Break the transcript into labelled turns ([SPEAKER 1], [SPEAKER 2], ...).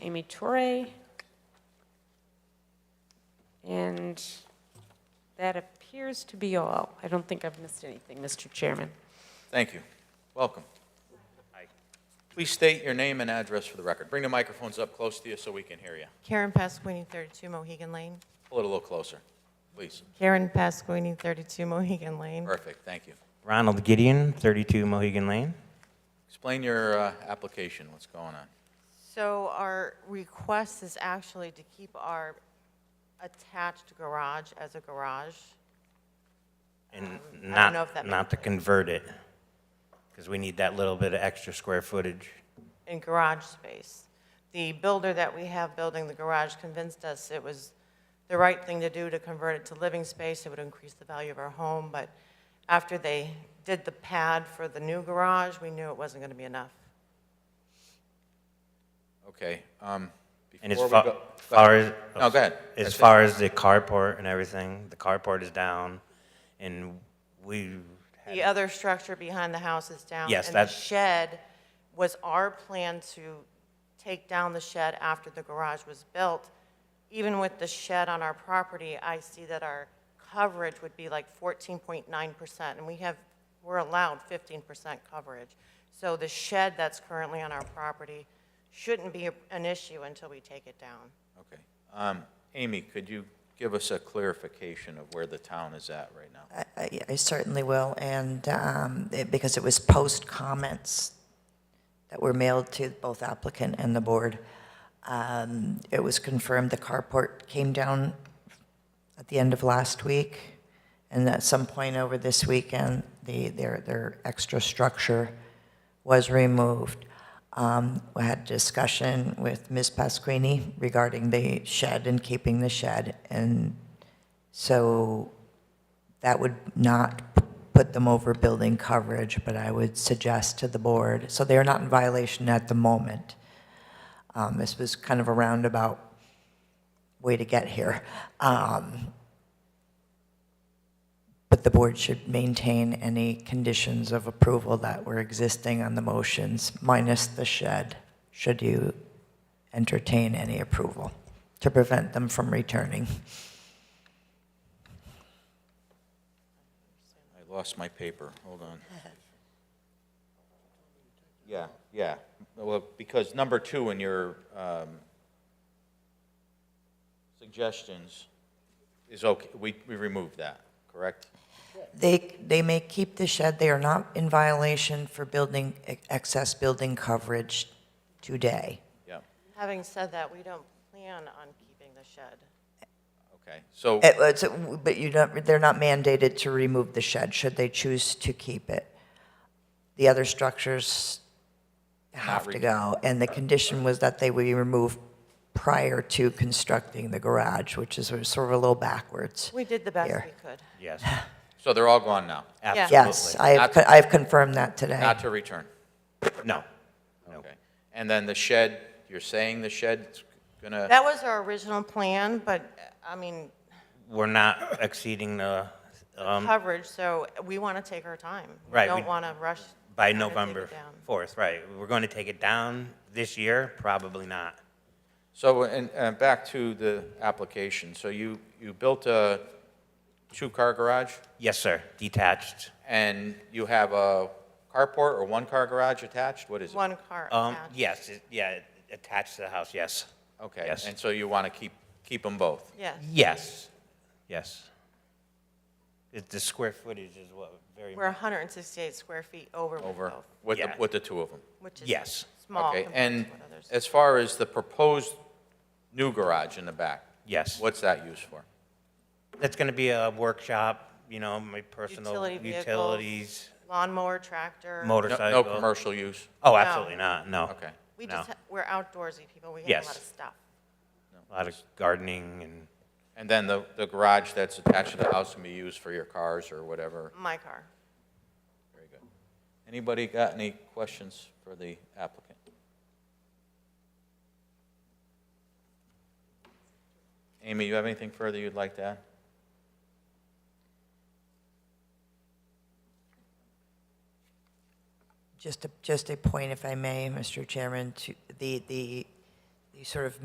[SPEAKER 1] Amy Torre. And that appears to be all. I don't think I've missed anything, Mr. Chairman.
[SPEAKER 2] Thank you. Welcome. Please state your name and address for the record. Bring the microphones up close to you so we can hear you.
[SPEAKER 3] Karen Pasquini, 32 Mohegan Lane.
[SPEAKER 2] Pull it a little closer, please.
[SPEAKER 3] Karen Pasquini, 32 Mohegan Lane.
[SPEAKER 2] Perfect, thank you.
[SPEAKER 4] Ronald Gideon, 32 Mohegan Lane.
[SPEAKER 2] Explain your uh, application, what's going on.
[SPEAKER 3] So our request is actually to keep our attached garage as a garage.
[SPEAKER 4] And
[SPEAKER 3] don't know if that
[SPEAKER 4] not, not to convert it, because we need that little bit of extra square footage.
[SPEAKER 3] in garage space. The builder that we have building the garage convinced us it was the right thing to do to convert it to living space. It would increase the value of our home, but after they did the pad for the new garage, we knew it wasn't going to be enough.
[SPEAKER 2] Okay. um,
[SPEAKER 4] And as
[SPEAKER 2] before we
[SPEAKER 4] fa-
[SPEAKER 2] go-
[SPEAKER 4] far as.
[SPEAKER 2] No, go ahead.
[SPEAKER 4] As
[SPEAKER 2] That's it.
[SPEAKER 4] far as the carport and everything, the carport is down, and we,
[SPEAKER 3] The other structure behind the house is down.
[SPEAKER 4] Yes,
[SPEAKER 3] And the
[SPEAKER 4] that's-
[SPEAKER 3] shed was our plan to take down the shed after the garage was built. Even with the shed on our property, I see that our coverage would be like 14.9%, and we have, we're allowed 15% coverage. So the shed that's currently on our property shouldn't be an issue until we take it down.
[SPEAKER 2] Okay. Um, Amy, could you give us a clarification of where the town is at right now?
[SPEAKER 5] I- I I certainly will, and um, it- because it was post comments that were mailed to both applicant and the board, um, it was confirmed the carport came down at the end of last week, and at some point over this weekend, the, their, their extra structure was removed. Um, We had discussion with Ms. Pasquini regarding the shed and keeping the shed, and so that would not put them over building coverage, but I would suggest to the board, so they are not in violation at the moment. Um, This was kind of a roundabout way to get here. Um, But the board should maintain any conditions of approval that were existing on the motions, minus the shed, should you entertain any approval, to prevent them from returning.
[SPEAKER 2] I lost my paper, hold on. Yeah, yeah, well, because number two in your um, suggestions is okay, we, we removed that, correct?
[SPEAKER 5] They, they may keep the shed, they are not in violation for building, excess building coverage today.
[SPEAKER 2] Yeah,
[SPEAKER 3] Having said that, we don't plan on keeping the shed.
[SPEAKER 2] okay, so,
[SPEAKER 5] It was- But you don't, they're not mandated to remove the shed, should they choose to keep it. The other structures have to go, and the condition was that they would be removed prior to constructing the garage, which is sort of a little backwards.
[SPEAKER 3] We did the best
[SPEAKER 5] Here.
[SPEAKER 3] we could.
[SPEAKER 4] yes,
[SPEAKER 2] so they're all gone now,
[SPEAKER 5] Yes,
[SPEAKER 4] absolutely.
[SPEAKER 5] I have, co- I have confirmed that today.
[SPEAKER 2] not to return,
[SPEAKER 4] No,
[SPEAKER 2] okay? And then the shed, you're saying the shed's gonna,
[SPEAKER 3] That was our original plan, but, I mean,
[SPEAKER 4] we're not exceeding the, um,
[SPEAKER 3] coverage, so we want to take our time.
[SPEAKER 4] Right,
[SPEAKER 3] We don't
[SPEAKER 4] we-
[SPEAKER 3] want to rush.
[SPEAKER 4] by
[SPEAKER 3] to take it
[SPEAKER 4] November
[SPEAKER 3] down.
[SPEAKER 4] 4th, right. We're going to take it down this year? Probably not.
[SPEAKER 2] so, and, and back to the application, so you, you built a two-car garage?
[SPEAKER 4] Yes, sir, detached.
[SPEAKER 2] And you have a carport or one-car garage attached? What is it?
[SPEAKER 3] One car
[SPEAKER 4] Um,
[SPEAKER 3] attached.
[SPEAKER 4] yes, it- yeah, attached to the house, yes.
[SPEAKER 2] Okay,
[SPEAKER 4] Yes.
[SPEAKER 2] and so you want to keep, keep them both?
[SPEAKER 3] Yes,
[SPEAKER 4] Yes, yes. It- The square footage is what, very,
[SPEAKER 3] we're 168 square feet over with
[SPEAKER 2] Over,
[SPEAKER 3] both,
[SPEAKER 2] with, the
[SPEAKER 4] Yeah.
[SPEAKER 2] with the two of them?
[SPEAKER 3] which is
[SPEAKER 4] Yes.
[SPEAKER 3] small
[SPEAKER 2] Okay,
[SPEAKER 3] compared
[SPEAKER 2] and
[SPEAKER 3] to what others.
[SPEAKER 2] as far as the proposed new garage in the back?
[SPEAKER 4] Yes.
[SPEAKER 2] What's that used for?
[SPEAKER 4] that's going to be a workshop, you know, my personal
[SPEAKER 3] Utility vehicles.
[SPEAKER 4] utilities,
[SPEAKER 3] Lawnmower, tractor.
[SPEAKER 2] No-
[SPEAKER 4] motorcycle.
[SPEAKER 2] No commercial use?
[SPEAKER 4] Oh, absolutely not, no.
[SPEAKER 2] Okay.
[SPEAKER 3] We
[SPEAKER 4] no.
[SPEAKER 3] just, ha- we're outdoorsy people, we have a
[SPEAKER 4] Yes.
[SPEAKER 3] lot of stuff.
[SPEAKER 4] A lot of gardening and,
[SPEAKER 2] And then the, the garage that's attached to the house can be used for your cars or whatever?
[SPEAKER 3] My car.
[SPEAKER 2] Very good. Anybody got any questions for the applicant? Amy, you have anything further you'd like to add?
[SPEAKER 5] Just a, just a point, if I may, Mr. Chairman, to the, the, you sort of